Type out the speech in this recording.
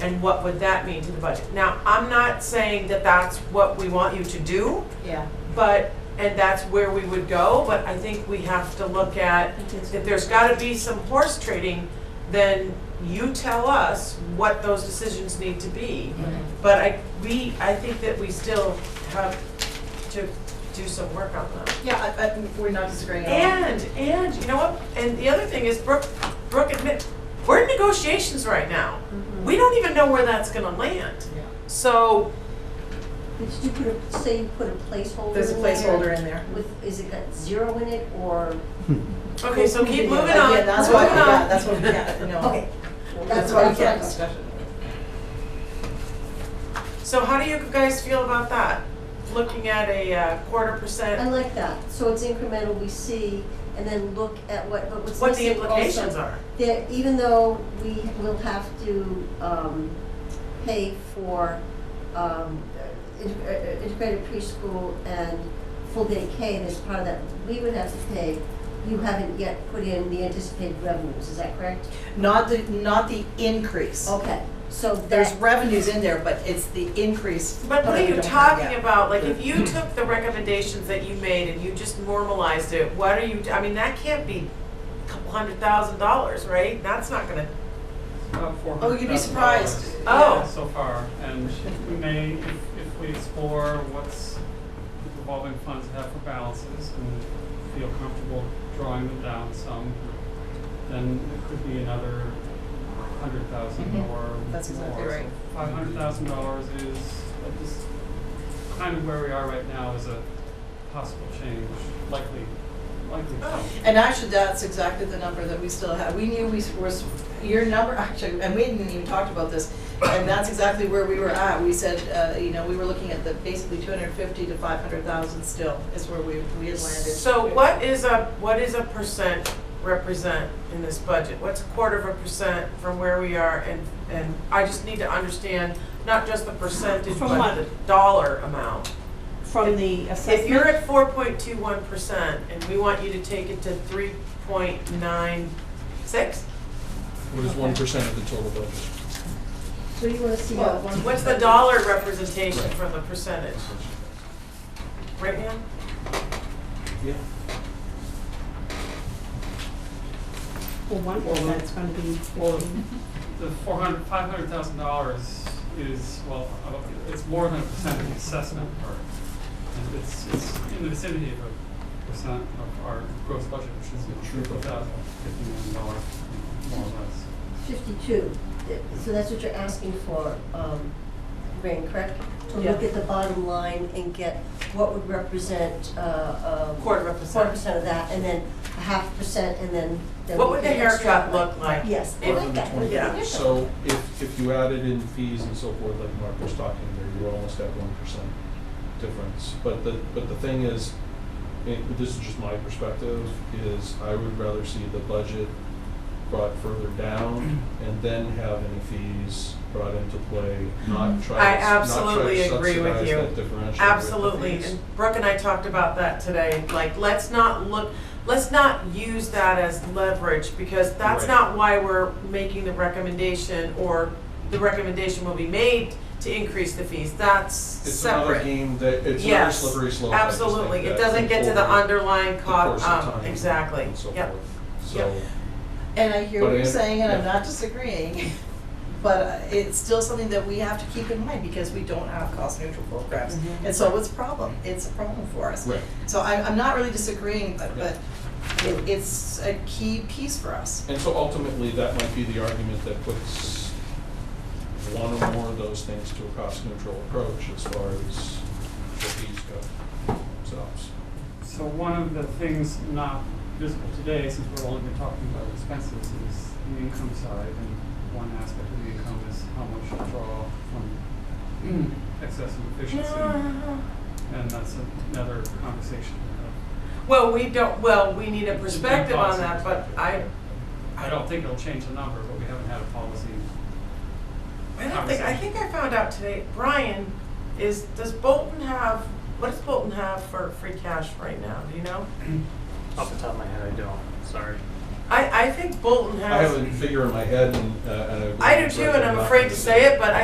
and what would that mean to the budget? Now, I'm not saying that that's what we want you to do, Yeah. but, and that's where we would go, but I think we have to look at, if there's gotta be some horse trading, then you tell us what those decisions need to be. But I, we, I think that we still have to do some work on that. Yeah, I, I, we're not disagreeing at all. And, and, you know what, and the other thing is Brooke, Brooke admit, we're in negotiations right now. Mm-hmm. We don't even know where that's gonna land. Yeah. So, Did you put a, say you put a placeholder There's a in there placeholder in there. With, is it got zero in it or? okay, so keep moving on, moving Again, that's what, on. yeah, that's what, yeah, you know. Okay. Well, That's why we what I can't thought. discussion. So how do you guys feel about that? Looking at a uh, quarter I percent, like that. So it's incremental, we see, and then look at what, but what's what the missing implications also- are. That even though we will have to, um, pay for, um, in- uh, integrated preschool and full day K, and as part of that, we would have to pay, you haven't yet put in the anticipated revenues, is that correct? Not the, not the increase. Okay, so There's that, revenues in there, but it's the increase. But what that are we you don't have talking yet. about? Like, if you took the recommendations that you made and you just normalized it, what are you, I mean, that can't be a couple hundred thousand dollars, right? That's not gonna, Oh, you'd be surprised. Oh. So far, and we may, if, if we explore what's revolving funds have for balances and feel comfortable drawing them down some, then it could be another hundred thousand Mhm. or more. That's exactly right. Five hundred thousand dollars is, uh, just kind of where we are right now is a possible change, likely, likely oh, change. And actually, that's exactly the number that we still had. We knew we were, your number, actually, and we hadn't even talked about this. And that's exactly where we were at. We said, uh, you know, we were looking at the basically two hundred fifty to five hundred thousand still is where we, we had landed. So what is a, what is a percent represent in this budget? What's a quarter of a percent from where we are and, and I just need to understand, not just the percentage, From but what? the dollar amount. From the assessment? If you're at four point two one percent and we want you to take it to three point nine six, What is one percent of the total budget? so you wanna see uh, how Well, one. what's the dollar representation from the percentage? Right now? Yeah. Well, one percent's gonna be Well, fifteen. the four hundred, five hundred thousand dollars is, well, uh, it's more than a percent of the assessment or and It's, it's in the vicinity of a percent of our gross budget, which is Sure. triple thousand, fifty million dollars, more or less. Fifty-two, Th- so that's what you're asking for, um, Rain, correct? To look Yeah. at the bottom line and get what would represent, uh, um. Quarter of a Quarter percent. percent of that, and then a half percent, and then. then What we would the can haircut extrapolate. look like? Yes, I if- like that. What would the yeah. haircut look So like? if, if you added in fees and so forth, like Mark was talking there, you're almost at one percent difference. But the, but the thing is, and this is just my perspective, is I would rather see the budget brought further down and then have any fees brought into play, not try I to, s- not try absolutely to agree with subsidize you. that differential with the fees. Absolutely, and Brooke and I talked about that today, like, let's not look, let's not use that as leverage, because that's Right. not why we're making the recommendation, or the recommendation will be made to increase the fees, that's It's another separate. game that, it's another Yes, slippery slope. I just think Absolutely, it that doesn't get to the over underlying the cost, course of um, time exactly, and so yep. forth. Yep. So, And I hear But what I you're am- saying, and I'm yeah. not disagreeing, but uh, it's still something that we have to keep in mind because we don't have cost neutral programs. Mhm. And so it's a problem, it's a problem for us. Right. So I'm, I'm not really disagreeing, but, but it, it's a key piece for us. and so ultimately, that might be the argument that puts one or more of those things to a cost neutral approach as far as the fees go themselves. So one of the things not visible today, since we're only been talking about expenses, is the income side. And one aspect of the income is how much you draw from excess and efficiency. And that's another conversation. Well, we don't, well, we need a perspective on that, but I, I don't think it'll change the number, but we haven't had a policy. I don't think, I think I found out today, Brian, is, does Bolton have, what does Bolton have for free cash right now, do you know? Off the top of my head, I don't. Sorry. I, I think Bolton I have has, a figure in my head and, uh, and I. uh, I do too, and I'm afraid to say it, but I